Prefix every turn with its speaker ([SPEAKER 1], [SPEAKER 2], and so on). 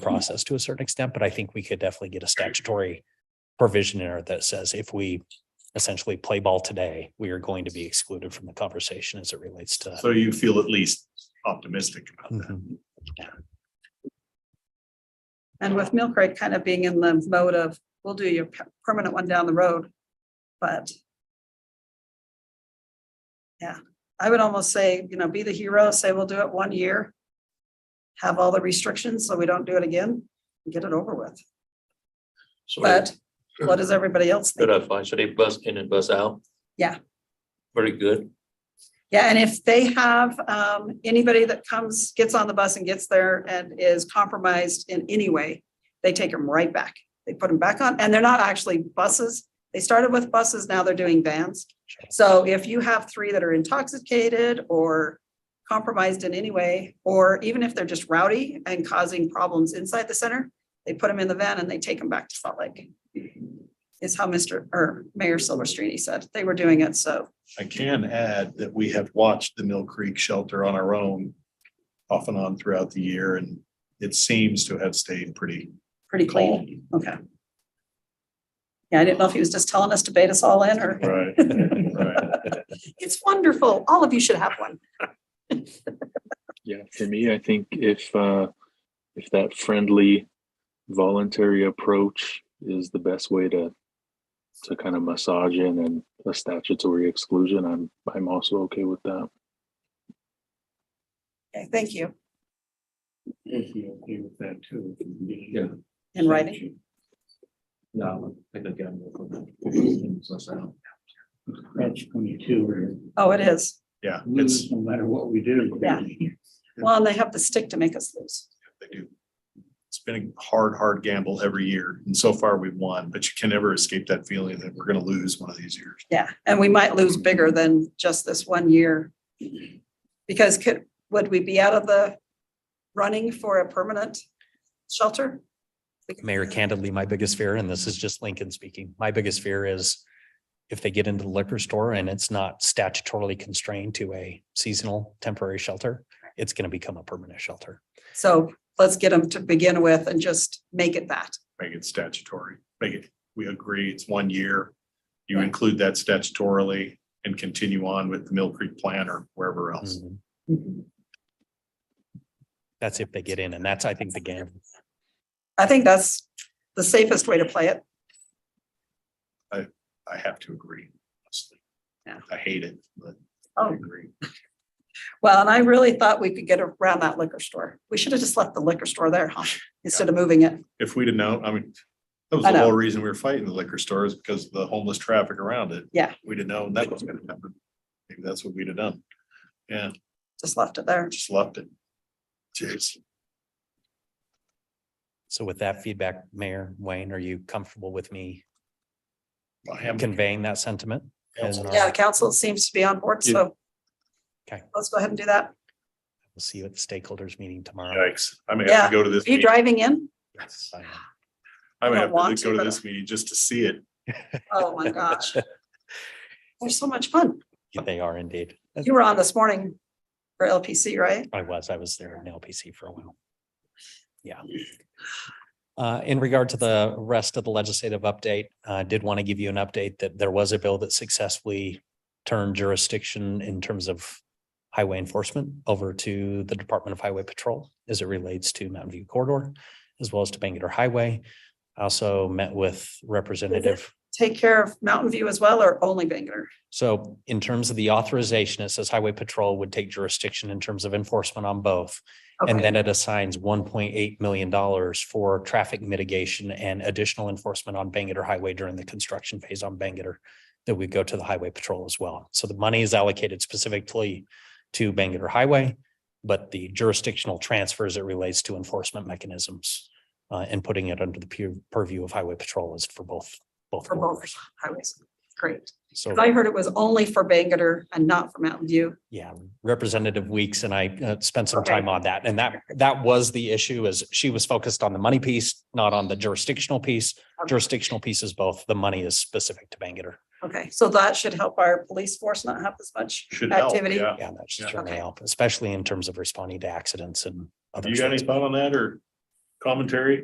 [SPEAKER 1] process to a certain extent, but I think we could definitely get a statutory provision in there that says if we essentially play ball today, we are going to be excluded from the conversation as it relates to.
[SPEAKER 2] So you feel at least optimistic about that.
[SPEAKER 1] Mhm.
[SPEAKER 3] And with Mill Creek kind of being in the mode of, we'll do your per- permanent one down the road, but. Yeah, I would almost say, you know, be the hero, say we'll do it one year. Have all the restrictions so we don't do it again, and get it over with. But what does everybody else
[SPEAKER 4] Good
[SPEAKER 3] think?
[SPEAKER 4] advice. Should they bus in and bus out?
[SPEAKER 3] Yeah.
[SPEAKER 4] Very good.
[SPEAKER 3] Yeah, and if they have, um, anybody that comes, gets on the bus and gets there and is compromised in any way, they take them right back. They put them back on, and they're not actually buses. They started with buses, now they're doing vans. So if you have three that are intoxicated or compromised in any way, or even if they're just rowdy and causing problems inside the center, they put them in the van and they take them back to Salt Lake. Is how Mr. or Mayor Silverstreet said. They were doing it, so
[SPEAKER 2] I can add that we have watched the Mill Creek Shelter on our own off and on throughout the year, and it seems to have stayed pretty
[SPEAKER 3] pretty clean.
[SPEAKER 2] calm.
[SPEAKER 3] Okay. Yeah, I didn't know if he was just telling us to bait us all in or,
[SPEAKER 2] Right. right.
[SPEAKER 3] it's wonderful. All of you should have one.
[SPEAKER 5] Yeah, for me, I think if uh, if that friendly, voluntary approach is the best way to to kind of massage in and a statutory exclusion, I'm I'm also okay with that.
[SPEAKER 3] Okay, thank you.
[SPEAKER 6] If you agree with that too.
[SPEAKER 4] Yeah.
[SPEAKER 3] In writing,
[SPEAKER 4] No, I think again.
[SPEAKER 6] That's twenty-two.
[SPEAKER 3] oh, it is.
[SPEAKER 2] Yeah,
[SPEAKER 6] We
[SPEAKER 2] it's,
[SPEAKER 6] lose no matter what we do.
[SPEAKER 3] Yeah. Well, and they have the stick to make us lose.
[SPEAKER 2] they do. It's been a hard, hard gamble every year, and so far we've won, but you can never escape that feeling that we're gonna lose one of these years.
[SPEAKER 3] Yeah, and we might lose bigger than just this one year. Because could, would we be out of the running for a permanent shelter?
[SPEAKER 1] Mayor, candidly, my biggest fear, and this is just Lincoln speaking, my biggest fear is if they get into the liquor store and it's not statutorily constrained to a seasonal temporary shelter, it's going to become a permanent shelter.
[SPEAKER 3] So let's get them to begin with and just make it that.
[SPEAKER 2] Make it statutory, make it, we agree, it's one year. You include that statutorily and continue on with the Mill Creek plan or wherever else.
[SPEAKER 1] Mhm.
[SPEAKER 3] Mm-hmm.
[SPEAKER 1] That's if they get in, and that's, I think, the game.
[SPEAKER 3] I think that's the safest way to play it.
[SPEAKER 2] I have to agree. honestly.
[SPEAKER 3] Yeah.
[SPEAKER 2] I hate it, but
[SPEAKER 3] Oh.
[SPEAKER 2] I agree.
[SPEAKER 3] Well, and I really thought we could get around that liquor store. We should have just left the liquor store there, huh? Instead of moving it.
[SPEAKER 2] If we'd have known, I mean, that was
[SPEAKER 3] I
[SPEAKER 2] the
[SPEAKER 3] know.
[SPEAKER 2] whole reason we were fighting the liquor stores because of the homeless traffic around it.
[SPEAKER 3] Yeah.
[SPEAKER 2] We'd have known that was gonna happen. Maybe that's what we'd have done. Yeah,
[SPEAKER 3] Just left it there.
[SPEAKER 2] just left it. Cheers.
[SPEAKER 1] So with that feedback, Mayor Wayne, are you comfortable with me
[SPEAKER 2] I am
[SPEAKER 1] conveying that sentiment? as an
[SPEAKER 2] counsel.
[SPEAKER 3] Yeah, the council seems to be on board, so.
[SPEAKER 1] Okay.
[SPEAKER 3] Let's go ahead and do that.
[SPEAKER 1] We'll see you at the stakeholders meeting tomorrow.
[SPEAKER 2] Yikes, I may have
[SPEAKER 3] Yeah.
[SPEAKER 2] to go to this.
[SPEAKER 3] Are you
[SPEAKER 2] meeting.
[SPEAKER 3] driving in?
[SPEAKER 2] Yes, I know. I may
[SPEAKER 3] don't
[SPEAKER 2] have
[SPEAKER 3] want
[SPEAKER 2] to go
[SPEAKER 3] to,
[SPEAKER 2] to
[SPEAKER 3] but-
[SPEAKER 2] this meeting just to see it.
[SPEAKER 3] Oh, my gosh. They're so much fun.
[SPEAKER 1] They are indeed.
[SPEAKER 3] You were on this morning for LPC, right?
[SPEAKER 1] I was, I was there in LPC for a while. Yeah. Uh, in regard to the rest of the legislative update, I did want to give you an update that there was a bill that successfully turned jurisdiction in terms of highway enforcement over to the Department of Highway Patrol as it relates to Mountain View Corridor as well as to Bangor Highway. I Also met with Representative
[SPEAKER 3] Take care of Mountain View as well or only Bangor?
[SPEAKER 1] so in terms of the authorization, it says Highway Patrol would take jurisdiction in terms of enforcement on both. And
[SPEAKER 3] Okay,
[SPEAKER 1] then it assigns one point eight million dollars for traffic mitigation and additional enforcement on Bangor Highway during the construction phase on Bangor. That would go to the highway patrol as well. So the money is allocated specifically to Bangor Highway. But the jurisdictional transfers it relates to enforcement mechanisms uh, and putting it under the pu- purview of highway patrol is for both, both.
[SPEAKER 3] For both.
[SPEAKER 1] corridors.
[SPEAKER 3] highways. Great.
[SPEAKER 1] So.
[SPEAKER 3] I heard it was only for Bangor and not for Mountain View.
[SPEAKER 1] Yeah, Representative Weeks and I uh, spent some
[SPEAKER 3] Okay.
[SPEAKER 1] time on that, and that, that was the issue is she was focused on the money piece, not on the jurisdictional piece. Jurisdictional piece is both, the money is specific to Bangor.
[SPEAKER 3] Okay, so that should help our police force not have as much
[SPEAKER 2] Should help,
[SPEAKER 3] activity.
[SPEAKER 2] yeah.
[SPEAKER 1] Yeah, that should
[SPEAKER 2] Yeah.
[SPEAKER 1] certainly
[SPEAKER 3] Okay.
[SPEAKER 1] help, especially in terms of responding to accidents and. other
[SPEAKER 2] You got any
[SPEAKER 1] sorts.
[SPEAKER 2] thought on that or commentary